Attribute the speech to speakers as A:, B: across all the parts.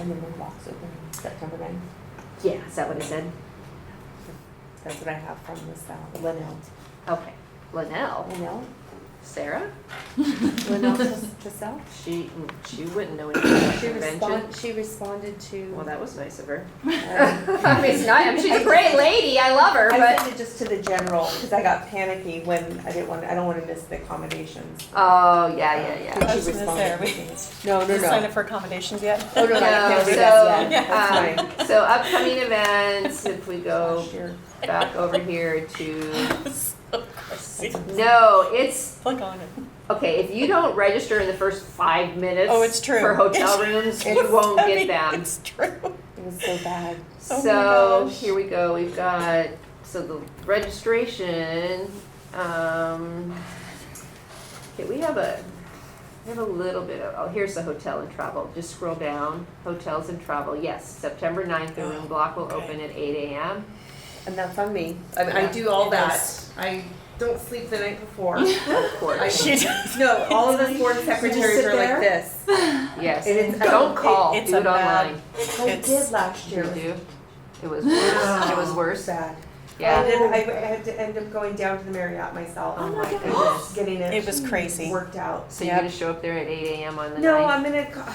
A: And the mailbox open September ninth.
B: Yeah, is that what it said?
A: That's what I have from this, uh, Linnell.
B: Okay. Linnell,
A: Linnell?
B: Sarah?
A: Linnell Tris- Trissell?
B: She, she wouldn't know anything about
A: She
B: convention.
A: responded, she responded to.
B: Well, that was nice of her.
A: um,
B: I mean, it's not, I mean, she's a great lady, I love her,
A: I
B: but.
A: sent it just to the general, cause I got panicky when I didn't want, I don't wanna miss the accommodations.
B: Oh, yeah, yeah, yeah.
C: I was gonna say, are we-
A: No, no,
C: Did you sign
A: no.
C: up for accommodations yet?
A: Oh, no, no, I
B: No,
A: can't do
B: so,
A: that yet, that's fine.
B: um, so upcoming events, if we go
A: Last year.
B: back over here to,
C: So crazy.
B: no, it's,
C: Click on it.
B: okay, if you don't register in the first five minutes
C: Oh, it's true.
B: for hotel rooms,
C: It's-
B: you won't
C: I
B: get
C: mean,
B: them.
C: It's true.
A: It was so bad.
C: Oh my
B: So
C: gosh.
B: here we go. We've got so the registration. Um, okay, we have a we have a little bit of. Oh, here's the hotel and travel. Just scroll down. Hotels and travel. Yes, September 9th, The
A: Oh,
B: room block will open at eight a.m.
A: And that's on me. I, mean, I
C: Yeah,
A: do all
C: it
A: that.
C: is.
A: I don't sleep the night before.
B: Of course.
C: She does.
A: no, all of us board secretaries
C: sit
A: are like
C: there?
A: this.
B: yes.
A: It is-
B: Don't call.
C: It- it's
B: Do
C: a
B: it
C: bad-
B: online.
A: I
C: It's-
A: did last
B: You
A: year. Ah,
B: do. It was worse. It was worse.
A: Sad. I,
B: Yeah.
A: did, I, I had to end up going down to the Marriott myself.
B: Oh my
A: like,
B: goodness.
A: getting it,
C: It was crazy.
A: worked out.
B: So you're
C: Yep.
B: gonna show up there at eight a.m. on the
A: No,
B: ninth?
A: I'm gonna. co- I'm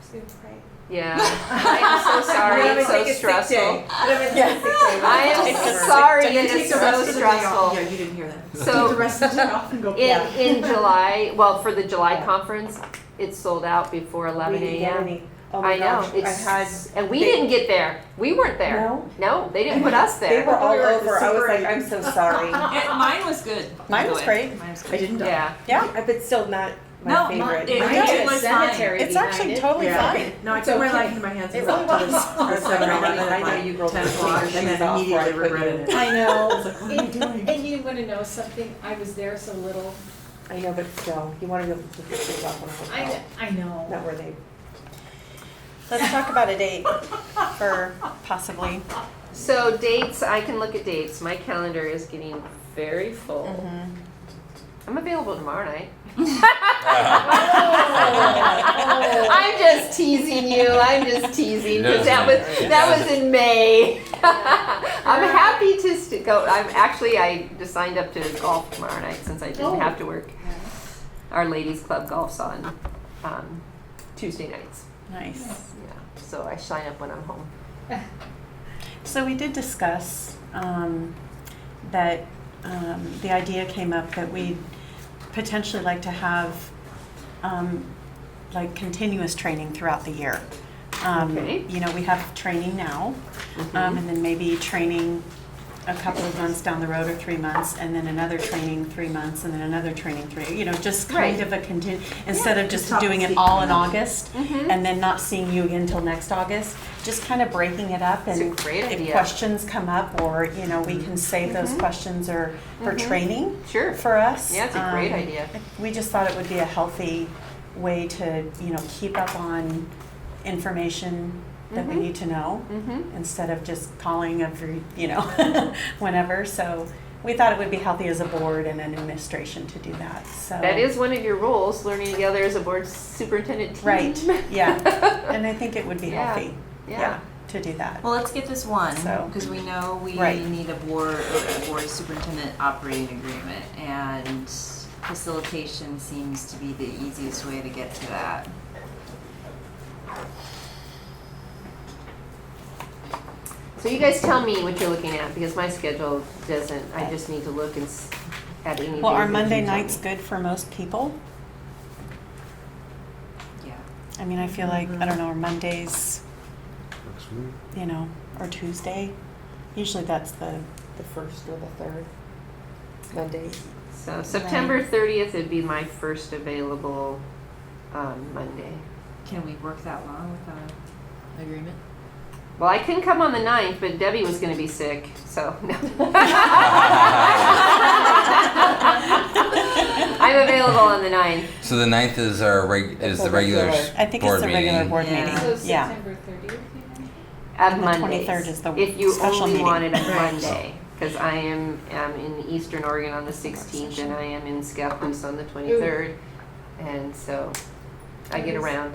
A: just gonna pray.
B: Yeah. I'm so sorry.
A: I'm gonna
B: It's so
A: take a sick
B: stressful.
A: day. I'm gonna take a sick day.
B: I am
C: It's a
B: sorry
C: sick day.
B: that it's so stressful.
D: you didn't hear that.
B: So
D: rest of the day off and go.
A: Yeah.
B: in, in July, well, for the July
A: Yeah.
B: conference, it's sold out before
A: We
B: eleven
A: didn't get
B: AM.
A: any. Oh my
B: I know,
A: gosh, I had.
B: it's, and we
A: they-
B: didn't get there. We weren't there.
A: No,
B: No, they didn't put us
A: they were
B: there.
A: all
D: We were at the
A: over. I was
D: Super
A: like,
D: Eight.
A: I'm so sorry.
E: Yeah, mine was good.
C: Mine was great.
E: Mine was
D: I
E: great.
D: didn't die.
B: Yeah.
C: Yeah,
A: Uh, But still not
E: No,
A: my
E: my-
A: favorite.
E: it-
D: I
E: I
D: had
E: did
D: a
E: was
D: cemetery
C: it's
D: behind
C: actually
D: it.
C: totally
D: Yeah.
C: fine.
D: No, I
A: It's
D: took my
A: okay.
D: life in my hands
A: It
D: and
A: really
D: walked to the s-
A: was.
D: the seven eleven
A: I know you
D: at
A: girls
D: like ten
A: take
D: o'clock
A: your
D: and
A: shoes
D: then
A: off
D: immediately
A: before I put you
D: regretted it.
C: I know.
D: "Mm."
F: And and you want to know something? I was there so little.
A: I know, but still, you want to be able to put your shoes off on a
F: I,
A: hotel.
F: kn- I know.
A: Not where they.
C: Let's talk about a date for possibly.
B: So dates, I can look at dates. My calendar is getting very full.
C: Mm-hmm.
B: I'm available tomorrow night.
C: Oh.
B: I'm just teasing you. I'm just teasing because that was that was in May. I'm happy to st- go. I'm actually I just signed up to golf tomorrow night since I didn't
C: Oh.
B: have to work. Our ladies club golfs on um, Tuesday nights.
C: Nice.
B: Yeah, so I sign up when I'm home.
C: So we did discuss um, that um, the idea came up that we'd potentially like to have um, like continuous training throughout the year. Um,
B: Okay.
C: You know, we have training now, um, and then maybe training a couple of months down the road or three months, and then another training three months, and then another training three. You know, just kind
B: Right.
C: of a continu instead of just
D: Top
C: doing it
D: seat.
C: all in August
B: Mhm.
C: and then not seeing you again until next August. Just kind of breaking it up
B: It's
C: and
B: a great
C: if
B: idea.
C: questions come up or you know we can save those questions or for training
B: Sure.
C: for us.
B: Mm-hmm. Yeah, it's a great
C: Um,
B: idea.
C: We just thought it would be a healthy way to you know keep up on information that we need to know
B: Mm-hmm.
C: instead of just calling every you know whenever. So we thought it would be healthy as a board and an administration to do that. So
B: That is one of your roles, learning together as a board superintendent team.
C: right. Yeah, and I think it would be
B: Yeah.
C: healthy.
B: Yeah.
C: to do that.
E: Well, let's get this one,
C: So-
E: because we know we
C: Right.
E: need a board, a board superintendent operating agreement, and facilitation seems to be the easiest way to get to that.
B: So you guys tell me what you're looking at because my schedule doesn't. I just need to look and s- at any.
C: Well,
B: days
C: are
B: that you
C: Monday
B: tell me.
C: nights good for most people?
E: Yeah.
C: I mean, I feel like,
B: Mm-hmm.
C: I don't know, are Mondays, you know, or Tuesday? Usually that's the,
A: The first or the third Monday.
B: So September thirtieth would be my first available um, Monday.
E: Can we work that long with uh, an agreement?
B: Well, I couldn't come on the 9th, but Debbie was going to be sick, so no. I'm available on the 9th.
G: So the ninth is our reg- is the regular s-
C: I think
G: board
C: it's the
G: meeting.
C: regular board
E: Yeah.
C: meeting.
F: So
C: Yeah.
F: September thirtieth, you mentioned?
B: At
C: And the
B: Mondays.
C: 23rd is the
B: If you
C: special
B: only
C: meeting.
B: want it on
E: Right.
B: Monday, because I am, am in Eastern Oregon on the 16th and I am in Scappoose on the 23rd. And so I get around.